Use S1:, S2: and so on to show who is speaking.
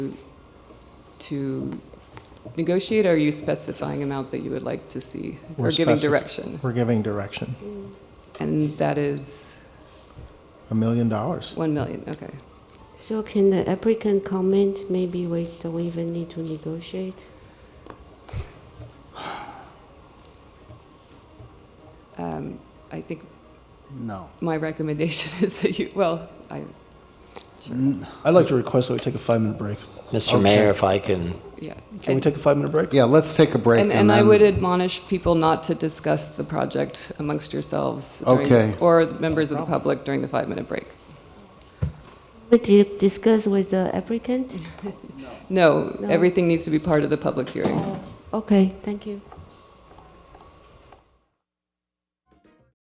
S1: to negotiate, or are you specifying amount that you would like to see? Or
S2: We're
S1: giving
S2: specif-
S1: direction?
S2: We're giving direction.
S1: And that is
S2: A million dollars.
S1: 1 million, okay.
S3: So can the applicant comment, maybe we don't even need to negotiate?
S1: Um, I think
S4: No.
S1: my recommendation is that you, well, I,
S5: I'd like to request that we take a five-minute break.
S6: Mr. Mayor, if I can,
S1: yeah.
S5: Can we take a five-minute break?
S4: Yeah, let's take a break.
S1: And, and I
S4: then-
S1: would admonish people not to discuss the project amongst yourselves. during-
S4: Okay.
S1: Or members of the public during the five-minute break.
S3: We did discuss with the applicant?
S1: No,
S3: No.
S1: everything needs to be part of the public hearing.
S3: Okay, thank you.